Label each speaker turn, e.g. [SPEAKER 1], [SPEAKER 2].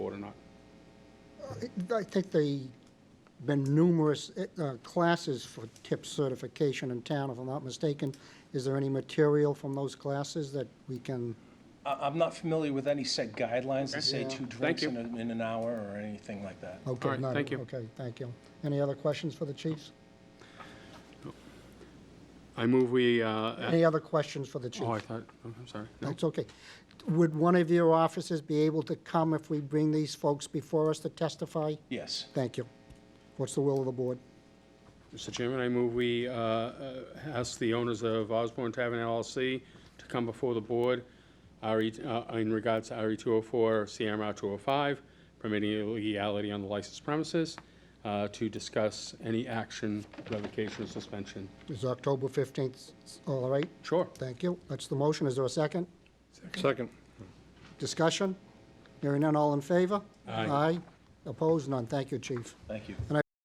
[SPEAKER 1] I think they, been numerous uh, classes for tip certification in town, if I'm not mistaken. Is there any material from those classes that we can?
[SPEAKER 2] I, I'm not familiar with any set guidelines that say two drinks
[SPEAKER 3] you.
[SPEAKER 2] in, a- in an hour or anything like that.
[SPEAKER 1] okay,
[SPEAKER 3] All right,
[SPEAKER 1] none.
[SPEAKER 3] thank you.
[SPEAKER 1] Okay, thank you. Any other questions for the chiefs?
[SPEAKER 3] I move we, uh,
[SPEAKER 1] Any other questions for the chiefs?
[SPEAKER 3] oh, I thought, oh, I'm sorry. No.
[SPEAKER 1] That's okay. Would one of your officers be able to come if we bring these folks before us to testify?
[SPEAKER 2] Yes.
[SPEAKER 1] Thank you. What's the will of the board?
[SPEAKER 3] Mr. Chairman, I move we uh, uh, ask the owners of Osborne Tavern LLC to come before the board RE uh, in regards to RE 204, CMR 205, permitting illegality on the licensed premises, uh, to discuss any action, revocation, or suspension.
[SPEAKER 1] Is October 15th all right?
[SPEAKER 3] Sure.
[SPEAKER 1] Thank you. That's the motion. Is there a second?
[SPEAKER 4] Second.
[SPEAKER 1] Discussion? Hearing none, all in favor?
[SPEAKER 3] Aye.
[SPEAKER 1] Aye. Opposed? None. Thank you, Chief.
[SPEAKER 2] Thank you.